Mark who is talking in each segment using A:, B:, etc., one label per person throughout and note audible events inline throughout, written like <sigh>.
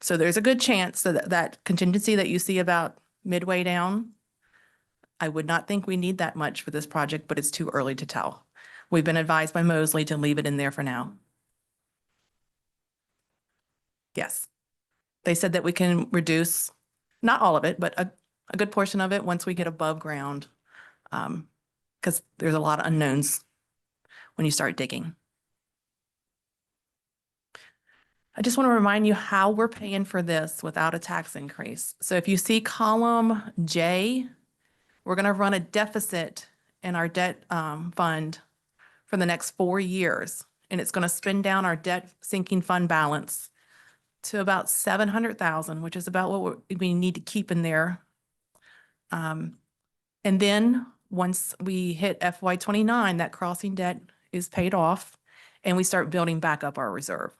A: So there's a good chance that that contingency that you see about midway down, I would not think we need that much for this project, but it's too early to tell. We've been advised by Mosley to leave it in there for now. Yes. They said that we can reduce, not all of it, but a, a good portion of it once we get above ground. Um, because there's a lot of unknowns when you start digging. I just want to remind you how we're paying for this without a tax increase. So if you see column J, we're going to run a deficit in our debt um, fund for the next four years. And it's going to spin down our debt sinking fund balance to about 700,000, which is about what we- we need to keep in there. Um, And then, once we hit FY '29, that crossing debt is paid off and we start building back up our reserve.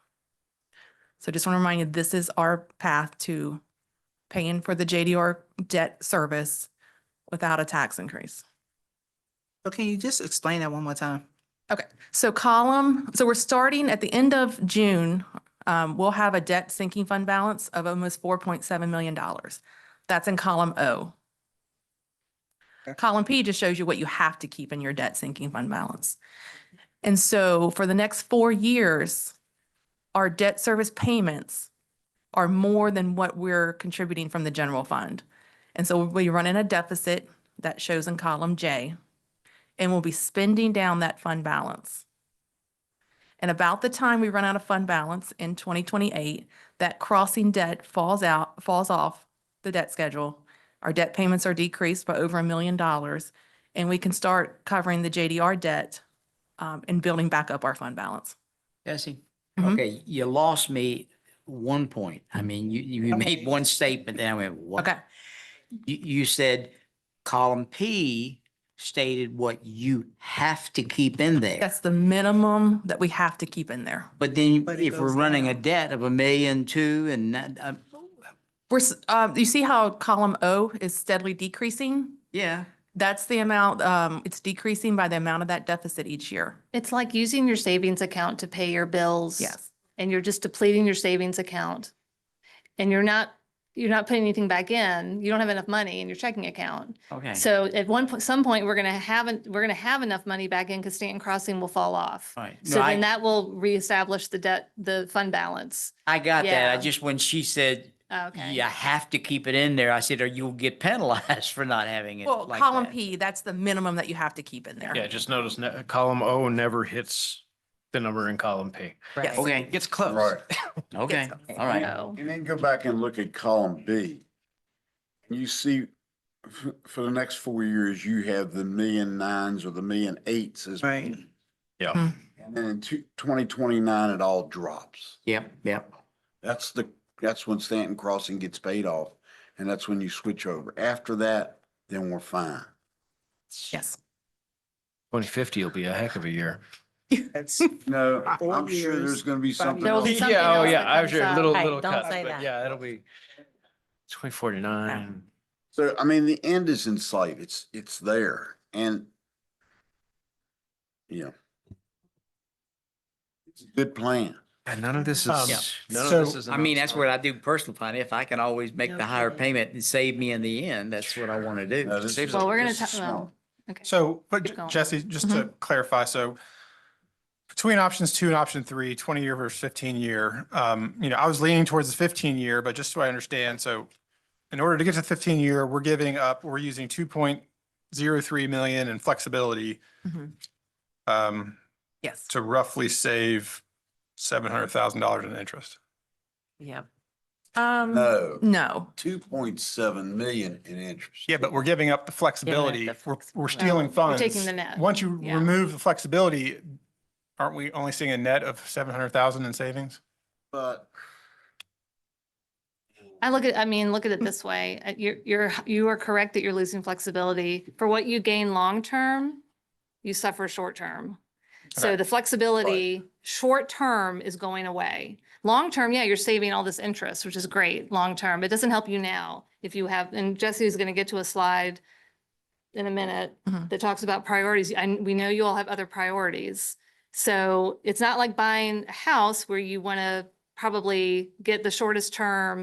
A: So just want to remind you, this is our path to paying for the JDR debt service without a tax increase.
B: So can you just explain that one more time?
A: Okay, so column, so we're starting at the end of June, um, we'll have a debt sinking fund balance of almost four point seven million dollars. That's in column O.
B: Okay.
A: Column P just shows you what you have to keep in your debt sinking fund balance. And so for the next four years, our debt service payments are more than what we're contributing from the general fund. And so we run in a deficit that shows in column J and we'll be spending down that fund balance. And about the time we run out of fund balance in 2028, that crossing debt falls out, falls off the debt schedule. Our debt payments are decreased by over a million dollars, and we can start covering the JDR debt um, and building back up our fund balance.
C: Jesse,
A: Mhm.
C: okay, you lost me one point. I mean, you, you
B: Okay.
C: made one statement, then I went, what?
A: Okay,
C: You, you said column P stated what you have to keep in there.
A: that's the minimum that we have to keep in there.
C: But then
B: But it
C: if we're
B: goes
C: running a
B: down.
C: debt of a million two and, that, uh,
A: We're, s- uh, you see how column O is steadily decreasing?
C: yeah,
A: That's the amount, um, it's decreasing by the amount of that deficit each year.
D: It's like using your savings account to pay your bills.
A: Yes.
D: And you're just depleting your savings account. And you're not, you're not putting anything back in. You don't have enough money in your checking account.
C: okay.
D: So at one, po- some point, we're gonna have, en- we're gonna have enough money back in because Stanton Crossing will fall off.
C: All right. No,
D: So then
C: I-
D: that will reestablish the debt, the fund balance.
C: I got that. I
D: Yeah.
C: just, when she said,
D: Okay.
C: you have to keep it in there, I said, or you'll get penalized <laughs> for not having it
A: Well,
C: like
A: column
C: that."
A: P, that's the minimum that you have to keep in there.
E: Yeah, just notice ne- column O never hits the number in column P.
A: Yes.
C: Okay,
E: Gets close.
F: Right. <laughs>
C: okay,
A: Yes.
C: all right.
D: So-
F: And then go back and look at column B. You see, f- for the next four years, you have the million nines or the million eights as.
B: Right.
F: And then in two- 2029, it all drops.
C: Yep, yep.
F: That's the, that's when Stanton Crossing gets paid off. And that's when you switch over. After that, then we're fine.
A: Yes.
E: Twenty fifty will be a heck of a year.
B: That's,
F: No,
B: Four
F: I'm sure
B: years,
F: there's going to be
B: five years.
F: something
D: There will
F: else.
D: be something
E: Yeah, oh,
D: else
E: yeah,
D: that
E: I was
D: comes
E: sure,
D: up.
E: little,
G: Hey,
E: little
G: don't
E: cut,
G: say
E: but
G: that.
E: yeah, it'll be twenty forty-nine.
F: So, I mean, the end is in sight. It's, it's there and yeah. It's a good plan.
E: And none of this
H: Um,
E: is, none of
H: so-
E: this is.
C: I mean, that's what I do personal finance. If I can always make the higher payment and save me in the end, that's what I want to do.
F: No, this is-
D: Well, we're gonna
F: this is
D: ta- well,
F: smart.
D: Okay.
H: So, but
D: Keep
H: J-
D: going. Mm-hmm.
H: Jesse, just to clarify, so between options two and option three, 20 year versus 15 year, um, you know, I was leaning towards the 15 year, but just so I understand, so in order to get to 15 year, we're giving up, we're using 2.03 million in flexibility
A: Mhm.
D: Mm-hmm.
H: um,
A: Yes.
H: to roughly save $700,000 in interest.
G: Yeah.
A: Um,
F: No,
A: no,
F: two point seven million in interest.
H: Yeah, but we're giving up the flexibility. We're, we're
G: flexibility.
H: stealing
D: We're
H: funds.
D: taking the net.
H: Once you
D: Yeah.
H: remove the flexibility, aren't we only seeing a net of 700,000 in savings?
F: But
D: I look at, I mean, look at it this way, uh, you're, you're, you are correct that you're losing flexibility. For what you gain long-term, you suffer short-term. So
H: Okay.
D: the flexibility, short-term is going away. Long-term, yeah, you're saving all this interest, which is great, long-term. It doesn't help you now. If you have, and Jesse's going to get to a slide in a minute
A: Mhm.
D: that talks about priorities, and we know you all have other priorities. So it's not like buying a house where you want to probably get the shortest term